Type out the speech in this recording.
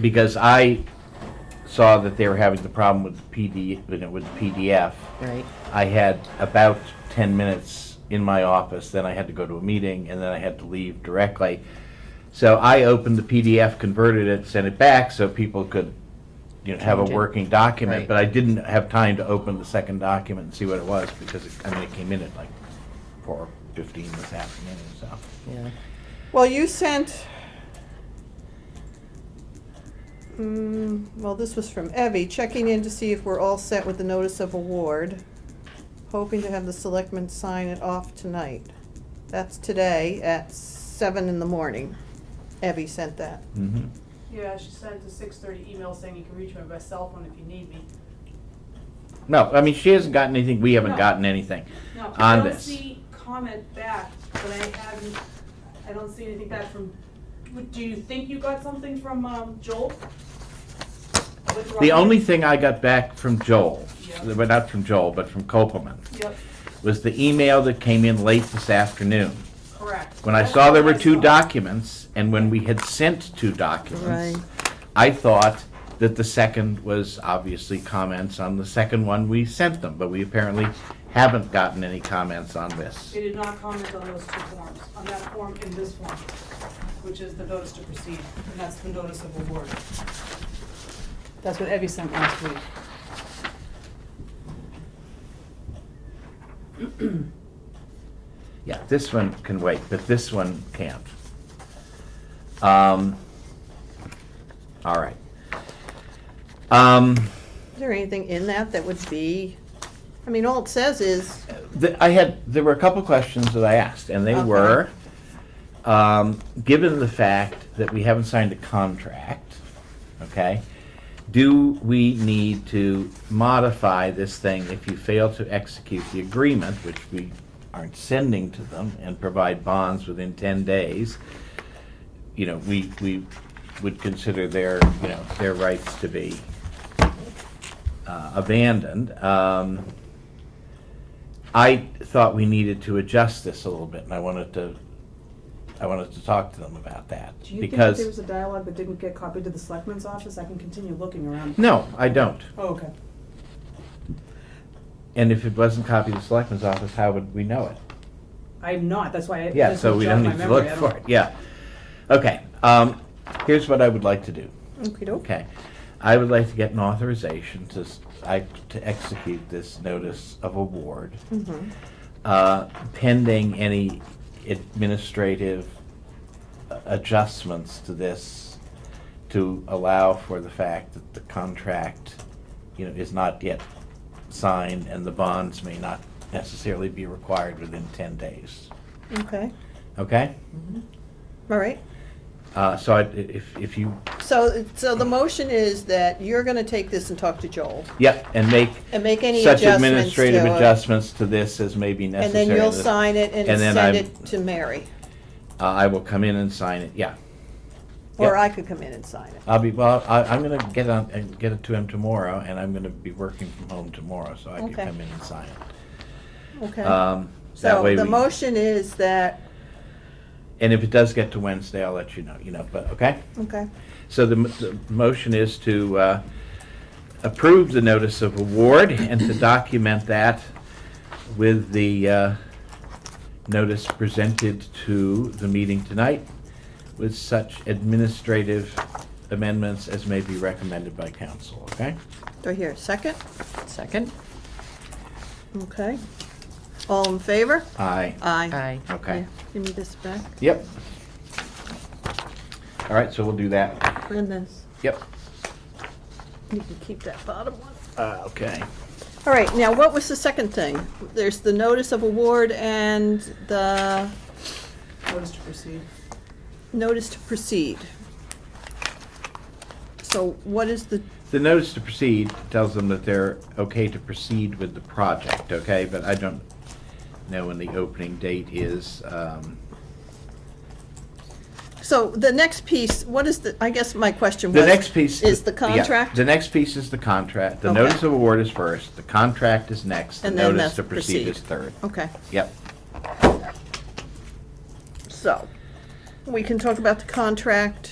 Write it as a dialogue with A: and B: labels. A: because I saw that they were having the problem with PD, with it- with PDF.
B: right?
A: I had about 10 minutes in my office, then I had to go to a meeting, and then I had to leave directly. So I opened the PDF, converted it, sent it back so people could, you know, have a
B: Change it.
A: working document.
B: Right.
A: But I didn't have time to open the second document and see what it was because, it- I mean, it came in at like 4:15 this afternoon, so.
B: Yeah.
C: Well, you sent. Mm, well, this was from Evie, checking in to see if we're all set with the notice of award, hoping to have the selectmen sign it off tonight. That's today at seven in the morning. Evie sent that.
B: Mm-hmm.
A: mhm.
D: Yeah, she sent a six thirty email saying you can reach me by cell phone if you need me.
A: No, I mean, she hasn't gotten anything, we haven't
D: No.
A: gotten anything.
D: No,
A: On
D: I don't
A: this.
D: see comment back, but I haven't, I don't see anything back from, would- do you think you got something from, um, Joel? With Robin?
A: The only thing I got back from Joel,
D: Yeah.
A: well, not from Joel, but from Copeland,
D: Yep,
A: was the email that came in late this afternoon.
D: correct.
A: When I
D: That's
A: saw there
D: what
A: were
D: Oh, I
A: two
D: saw.
A: documents, and when we had sent two documents, I thought that the second was obviously comments on the second one we sent them, but we apparently haven't gotten any comments on this.
D: They did not comment on those two forms, on that form and this form, which is the notice to proceed, and that's the notice of award.
B: That's what Evie sent last week.
A: Yeah, this one can wait, but this one can't. Um, all right. Um,
C: Is there anything in that that would be, I mean, all it says is,
A: The- I had, there were a couple questions that I asked, and they
C: Okay.
A: were, um, given the fact that we haven't signed a contract, okay, do we need to modify this thing if you fail to execute the agreement, which we aren't sending to them, and provide bonds within ten days? You know, we, we would consider their, you know, their rights to be uh, abandoned. Um, I thought we needed to adjust this a little bit, and I wanted to, I wanted to talk to them about that.
E: Do you think that there
A: because
E: was a dialogue that didn't get copied to the selectman's office? I can continue looking around.
A: No, I don't.
E: Oh, okay.
A: And if it wasn't copied to the selectman's office, how would we know it?
E: I'm not, that's why I.
A: Yeah,
E: this
A: so
E: will
A: we
E: jog
A: don't
E: my
A: need to
E: memory.
A: look
E: I don't-
A: for it, yeah. Okay, um, here's what I would like to do.
C: okey doke.
A: Okay, I would like to get an authorization to, s- I, to execute this notice of award,
C: Mhm.
A: uh, pending any administrative a- adjustments to this to allow for the fact that the contract, you know, is not yet signed and the bonds may not necessarily be required within ten days,
C: okay,
A: okay?
C: all right.
A: Uh, so I, if, if you,
C: So, so the motion is that you're gonna take this and talk to Joel
A: yep, and make
C: and make any adjustments
A: such
C: to uh, it.
A: administrative adjustments to this as may be
C: And
A: necessary.
C: then you'll
A: to this.
C: sign it and
A: And then
C: send
A: I'm-
C: it to Mary,
A: Uh, I will come in and sign it, yeah.
C: or
A: Yeah.
C: I could come in and sign it.
A: I'll be, well, I, I'm gonna get on, and get it to him tomorrow, and I'm gonna be working from home tomorrow, so I can
C: Okay.
A: come in and sign it.
C: Okay.
A: Um, that
C: So
A: way
C: the
A: we-
C: motion is that,
A: And if it does get to Wednesday, I'll let you know, you know, but, okay?
C: okay,
A: So the, m- the motion is to, uh, approve the notice of award and to document that with the, uh, notice presented to the meeting tonight with such administrative amendments as may be recommended by council, okay?
C: right here, second,
B: Second?
C: okay. All in favor?
A: Aye.
C: Aye.
B: Aye.
A: Okay.
C: Yeah, Give me this back,
A: Yep. All right, so we'll do that.
C: and this,
A: Yep.
C: you can keep that bottom one.
A: Uh, okay.
C: All right, now what was the second thing? There's the notice of award and the
D: Notice to proceed.
C: notice to proceed. So what is the,
A: The notice to proceed tells them that they're okay to proceed with the project, okay? But I don't know when the opening date is. um,
C: so the next piece, what is the, I guess my question was.
A: The next piece.
C: Is the
A: yeah,
C: contract?
A: The next piece is the contract. The
C: Okay.
A: notice of award is first, the contract is next, the
C: And then
A: notice
C: that's
A: to proceed
C: proceed.
A: is third.
C: Okay,
A: Yep.
C: so, we can talk about the contract